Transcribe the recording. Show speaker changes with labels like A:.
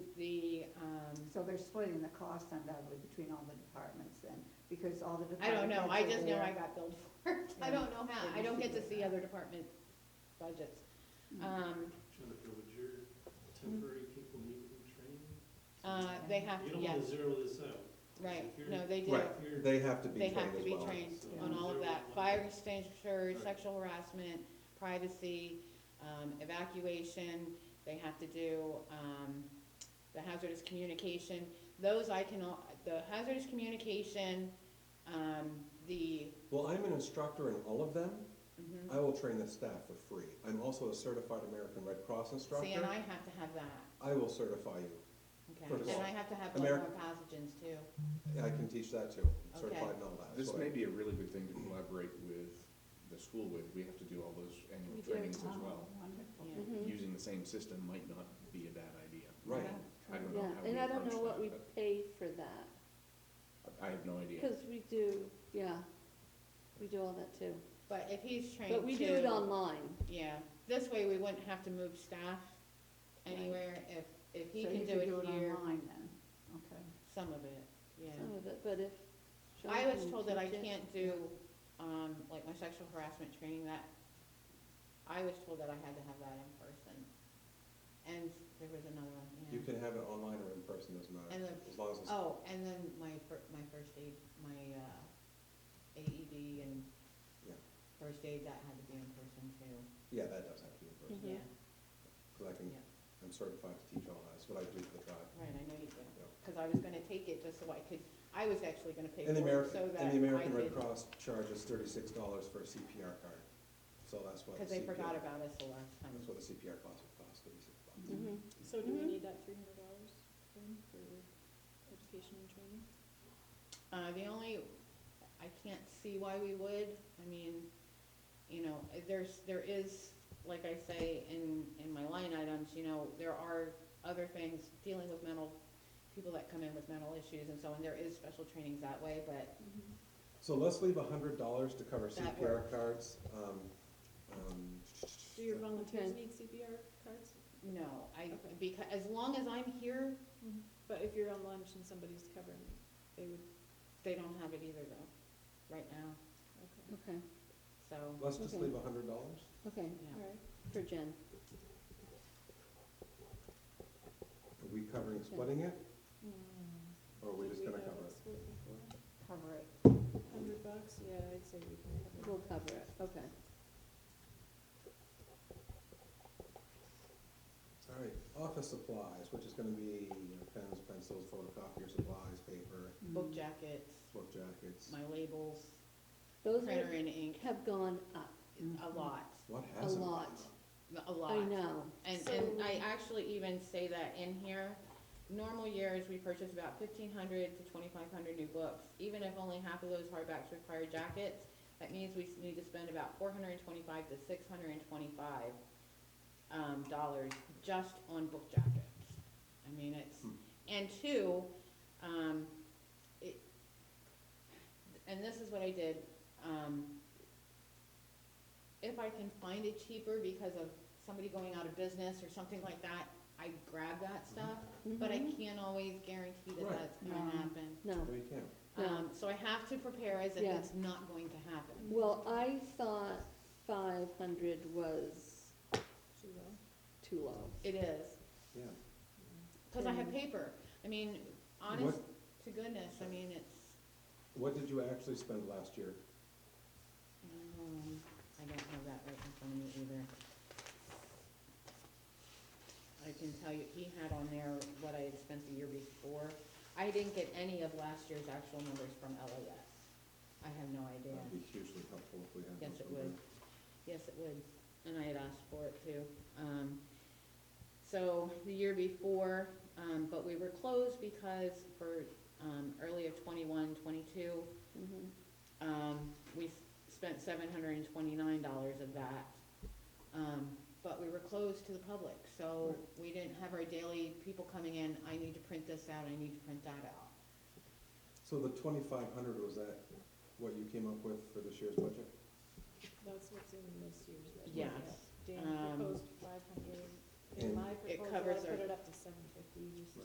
A: um,
B: So they're splitting the cost undoubtedly between all the departments then, because all the
A: I
B: departments.
A: don't know, I just know
B: are-
A: I got billed for it, I don't know how, I don't get to see other department budgets.
B: Mm. Mm-hmm.
A: Um,
C: Jennifer, would your temporary people need to be trained?
A: uh, they have
C: You
A: to,
C: don't
A: yes,
C: wanna zero this out.
A: right,
C: If you're-
A: no, they do,
D: Right.
C: You're-
D: They have to be
A: they
D: trained as well.
A: have to be trained
C: so
A: on all of
C: zero
A: that,
C: one.
A: fire extinguisher,
C: Right.
A: sexual harassment, privacy, um, evacuation, they have to do, um, the hazardous communication, those I can, al- the hazardous communication, um, the,
D: Well, I'm an instructor in all of them.
A: mhm.
D: I will train the staff for free. I'm also a certified American Red Cross instructor.
A: see, and I have to have that.
D: I will certify you. First of
A: Okay, and
D: all,
A: I have to have
D: America-
A: bloodborne pathogens too.
D: I can teach that too,
A: Okay.
D: certified and all that.
E: This
D: So I-
E: may be a really good thing to collaborate with the school with, we have to do Mm-hmm. all those annual trainings as
B: Oh,
E: well.
B: Wonderful.
A: Yeah.
F: Mm-hmm.
E: Using the same system might not be a bad idea.
D: Right.
E: I don't know
F: Yeah,
E: how we
F: and I don't
E: approach
F: know what
E: that,
F: we pay for that,
E: but I have no idea.
F: because we do, yeah, we do all that too.
A: But if he's trained
F: But we do it
A: to-
F: online,
A: Yeah, this way we wouldn't have to move staff
B: Right.
A: anywhere if, if he
B: So
A: can
B: you
A: do it here,
B: online then, okay.
A: some of it, yeah.
F: some of it, but if. Sean
A: I was
F: can
A: told that I
F: teach it-
A: can't do, um, like my sexual harassment training that, I was told that I had to have that in person. And there was another one, yeah.
D: You can have it online or in person, doesn't
A: And
D: matter,
A: the-
D: as long as it's,
A: Oh, and then my fir- my first aid, my, uh, AED and
D: Yeah.
A: first aid, that had to be in person too,
D: yeah, that does have to be in person.
A: yeah,
F: Mhm.
D: Because I can,
A: Mm-hmm. Yeah.
D: I'm certified to teach all that, that's what I do for the tribe.
A: right, I know you do.
D: Yeah.
A: Cause I was gonna take it just so I could, I was actually gonna pay for
D: And the
A: it
D: American,
A: so that I
D: and the
A: did,
D: American Red Cross charges thirty-six dollars for a CPR card, so that's what.
A: cause they
D: CPR
A: forgot about us the last time.
D: That's what a CPR class would cost, thirty-six bucks.
F: Mhm.
G: So do we
F: Mhm.
G: need that three hundred dollars then for education and training?
A: Uh, the only, I can't see why we would, I mean, you know, there's, there is, like I say, in, in my line items, you know, there are other things dealing with mental, people that come in with mental issues and so on, there is special trainings that way, but
D: So let's leave a hundred dollars to cover
A: That
D: CPR cards, um, um.
G: Do your volunteers
F: Okay.
G: need CPR cards?
A: no, I,
G: Okay. Mm-hmm.
A: because, as long as I'm here,
G: But if you're on lunch and somebody's covering you, they would,
A: they don't have it either though, right now,
G: okay,
F: Okay,
A: so,
D: Let's just
F: Okay.
D: leave a hundred dollars.
F: okay,
A: yeah.
G: all right.
F: for Jen,
D: Are we covering splitting it, or are we just gonna cover it?
B: Cover it.
G: Hundred bucks, yeah, I'd say we can cover it.
F: we'll cover it, okay.
D: All right, office supplies, which is gonna be you know, pens, pencils, photocopier supplies, paper,
B: Mm.
A: book jackets,
D: book jackets.
A: my labels,
F: Those
A: printer
F: are-
A: and ink,
F: have gone up,
A: a lot,
D: What hasn't? gone
F: lot.
D: up?
A: a lot.
F: I know,
A: And,
G: So-
A: and I actually even say that in here, normal years, we purchase about fifteen hundred to twenty-five hundred new books. Even if only half of those hardbacks require jackets, that means we need to spend about four hundred and twenty-five to six hundred and twenty-five, um, dollars just on book jackets. I mean, it's,
D: Hmm.
A: and two, um, it, and this is what I did, um, if I can find it cheaper because of somebody going out of business or something like that, I grab that stuff, but I
F: Mhm.
A: can't always guarantee that
D: Mm-hmm. Right.
A: that's gonna
B: No.
A: happen.
F: no.
D: No, you can't.
F: No.
A: Um, so I have to prepare as if
F: Yeah.
A: it's not going to happen.
F: Well, I thought five hundred was
G: Too low.
F: too low.
A: It is,
D: Yeah,
A: cause I have
F: Mhm.
A: paper. I mean, honest to goodness, I mean, it's,
D: what did you actually spend last year?
A: um, I don't have that right in front of me either. I can tell you, he had on there what I had spent the year before. I didn't get any of last year's actual numbers from LOS. I have no idea.
D: That'd be hugely helpful if we had.
A: Yes,
D: those
A: it
D: numbers.
A: would. Yes, it would, and I had asked for it too. Um, so the year before, um, but we were closed because for, um, early of twenty-one, twenty-two,
F: Mhm.
A: um, we s- spent seven hundred and twenty-nine dollars of that. Um, but we were closed to the public, so we didn't have our daily people coming in, I need to print this out, I need to print that out.
D: So the twenty-five hundred, was that what you came up with for this year's budget?
G: That's what's in this year's budget.
A: Yes,
G: Dan
A: um,
G: proposed five hundred,
D: And-
G: in my
A: It
G: proposal, I
A: covers our-
G: put it up to seven fifty, you said.